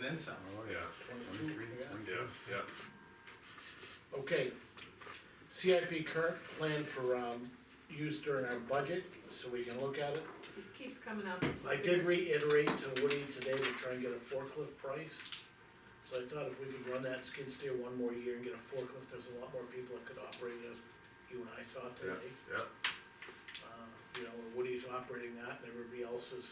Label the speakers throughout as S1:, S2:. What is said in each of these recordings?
S1: then some.
S2: Oh, yeah,
S3: Twenty-two,
S2: twenty-three,
S3: yeah.
S2: twenty-two.
S4: yeah, yeah.
S3: Okay, CIP current plan for, um, use during our budget, so we can look at it.
S5: It keeps coming up.
S3: I did reiterate to Woody today to try and get a forklift price. So I thought if we could run that skid steer one more year and get a forklift, there's a lot more people that could operate it, as you and I saw
S4: Yeah,
S3: today.
S4: yeah,
S3: Uh, You know, Woody's operating that, and everybody else is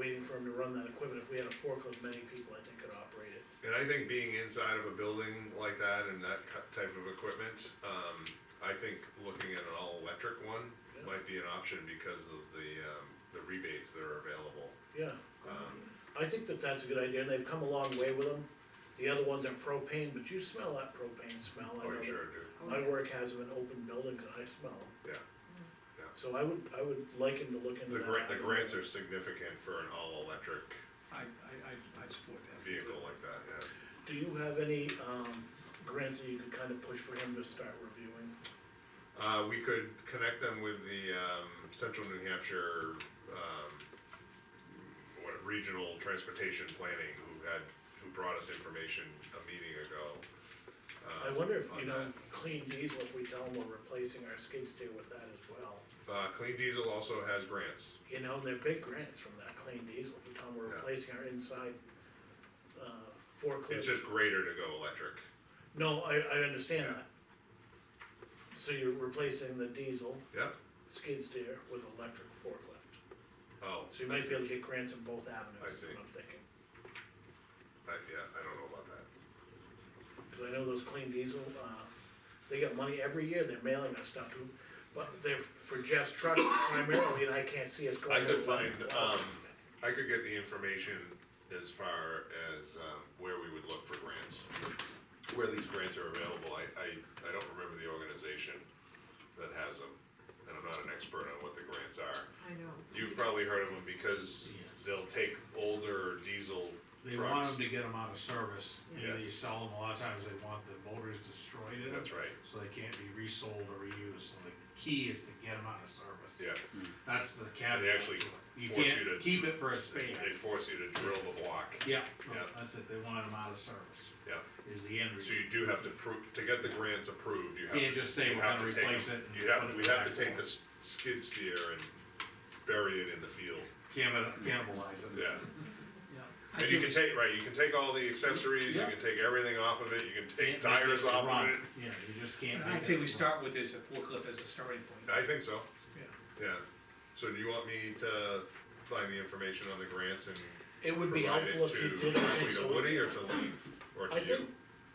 S3: waiting for him to run that equipment, if we had a forklift, many people, I think, could operate it.
S4: and I think being inside of a building like that and that cu- type of equipment, um, I think looking at an all-electric one
S3: Yeah.
S4: might be an option because of the, um, the rebates that are available.
S3: Yeah,
S4: Um,
S3: I think that that's a good idea, and they've come a long way with them. The other ones are propane, but you smell that propane smell, I
S4: oh,
S3: know
S4: you
S3: that
S4: sure do,
S5: Oh,
S3: My
S5: yeah.
S3: work has them in open building, cause I smell them.
S4: yeah. Yeah.
S3: So I would, I would like him to look into
S4: The
S3: that.
S4: grant, the grants are significant for an all-electric
S1: I, I, I, I'd support that.
S4: vehicle like that, yeah.
S3: Do you have any, um, grants that you could kind of push for him to start reviewing?
S4: Uh, we could connect them with the, um, Central New Hampshire, um, what, Regional Transportation Planning, who had, who brought us information a meeting ago.
S3: I
S4: um,
S3: wonder if,
S4: on
S3: you know,
S4: that.
S3: clean diesel, if we tell him we're replacing our skid steer with that as well.
S4: Uh, Clean Diesel also has grants,
S3: You know, they're big grants from that clean diesel, if we tell him we're
S4: Yeah.
S3: replacing our inside, uh,
S4: it's
S3: forklift.
S4: just greater to go electric,
S3: No, I, I understand
S4: Yeah.
S3: that. So you're replacing the diesel
S4: yeah,
S3: skid steer with electric forklift.
S4: oh.
S3: So you
S4: I
S3: might
S4: see.
S3: be able to get grants in both avenues, is
S4: I see.
S3: what I'm thinking.
S4: I, yeah, I don't know about that,
S3: Cause I know those clean diesel, uh, they got money every year, they're mailing us stuff to, but they're for Jeff's truck primarily, and I can't see us going.
S4: I could
S3: to one.
S4: find, um, I could get the information as far as, um, where we would look for grants. Where these grants are available, I, I, I don't remember the organization that has them, and I'm not an expert on what the grants are.
S5: I know.
S4: You've probably heard of them because they'll take older diesel
S1: They want
S4: trucks.
S1: them to get them out of service, either you
S4: Yes.
S1: sell them, a lot of times they want the motors destroyed in them.
S4: That's right,
S1: So they can't be resold or reused, so the key is to get them out of service.
S4: yes,
S1: That's the caveat.
S4: They actually
S1: to it. Mm-hmm. You
S4: force you to-
S1: can't keep it for a span.
S4: they force you to drill the block,
S1: Yeah,
S4: Yeah.
S1: that's it, they want them out of service,
S4: yeah,
S1: is the end
S4: so
S1: result.
S4: you do have to prove, to get the grants approved, you have to.
S1: Can't just say
S4: you
S1: we're
S4: have
S1: gonna
S4: to take
S1: replace
S4: them-
S1: it and
S4: You have,
S1: put it
S4: we have to
S1: back
S4: take
S1: on.
S4: the s- skid steer and bury it in the field,
S1: Cannibal- Cannibalize it.
S4: yeah.
S1: Yeah.
S4: And you can take, right, you can take all the accessories, you
S1: Yeah.
S4: can take everything off of it, you can take
S1: Can't make
S4: tires
S1: it
S4: off
S1: run.
S4: of it.
S1: Yeah, you just can't. make
S6: I'd say
S1: it
S6: we
S1: run.
S6: start with this at forklift as a starting point.
S4: I think so,
S6: Yeah.
S4: yeah. So do you want me to find the information on the grants and
S3: It would be
S4: provide
S3: helpful
S4: it
S3: if you
S4: to,
S3: did, I think,
S4: to
S3: so,
S4: Woody or to Lee, or
S3: I
S4: to
S3: think,
S4: you?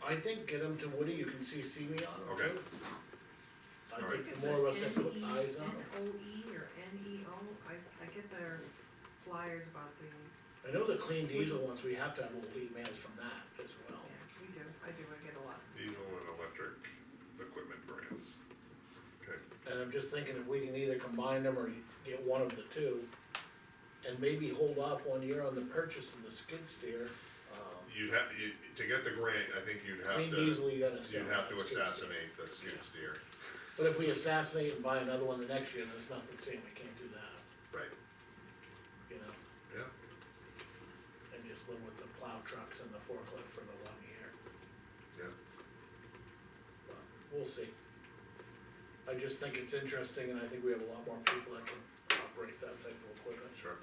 S3: I think get them to Woody, you can CC me on them
S4: Okay.
S3: too. I
S4: Alright.
S3: think the more of us that put eyes on
S5: N
S3: them,
S5: O E or N E O, I, I get their flyers about the,
S3: I know the clean diesel ones, we have to have little emails from that as well.
S5: yeah, we do, I do, I get a lot.
S4: Diesel and electric equipment grants. Okay,
S3: And I'm just thinking if we can either combine them or get one of the two, and maybe hold off one year on the purchase of the skid steer. um,
S4: you'd have, you, to get the grant, I think you'd have
S3: Clean
S4: to,
S3: diesel, you gotta sell.
S4: you'd have
S3: that
S4: to
S3: skid steer.
S4: assassinate the skid steer,
S3: But if we assassinate and buy another one the next year, there's nothing saying we can't do that,
S4: right,
S3: you know,
S4: yeah,
S3: and just live with the plow trucks and the forklift for the one year.
S4: yeah.
S3: But We'll see. I just think it's interesting, and I think we have a lot more people that can operate that type of equipment.
S4: Sure.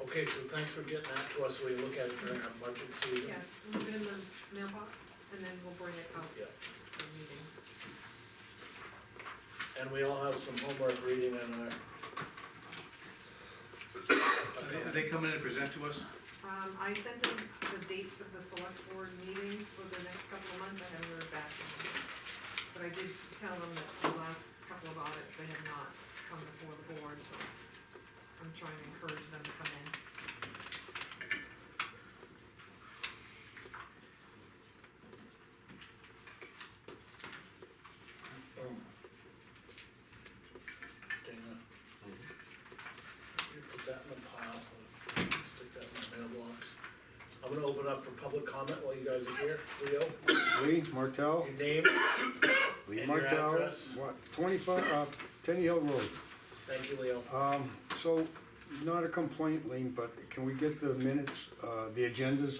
S3: Okay, so thanks for getting that to us, so we can look at it during our budget season.
S5: Yeah, leave it in the mailbox and then we'll bring it out
S3: Yeah.
S5: for meetings.
S3: And we all have some homework reading on our.
S6: Are they, are they coming in to present to us?
S5: Um, I sent them the dates of the select board meetings for the next couple of months, I haven't heard back from them. But I did tell them that the last couple of audits, they have not come before the board, so I'm trying to encourage them to come in.
S3: um, Dana. You put that in the pile, stick that in my mailbox. I'm gonna open up for public comment while you guys are here, Leo,
S2: Lee Martell,
S3: your name,
S2: Lee
S3: And your
S2: Martell,
S3: address?
S2: what, twenty-five, uh, Tenny Hill Road.
S3: thank you, Leo.
S2: Um, so, not a complaint, Lean, but can we get the minutes, uh, the agendas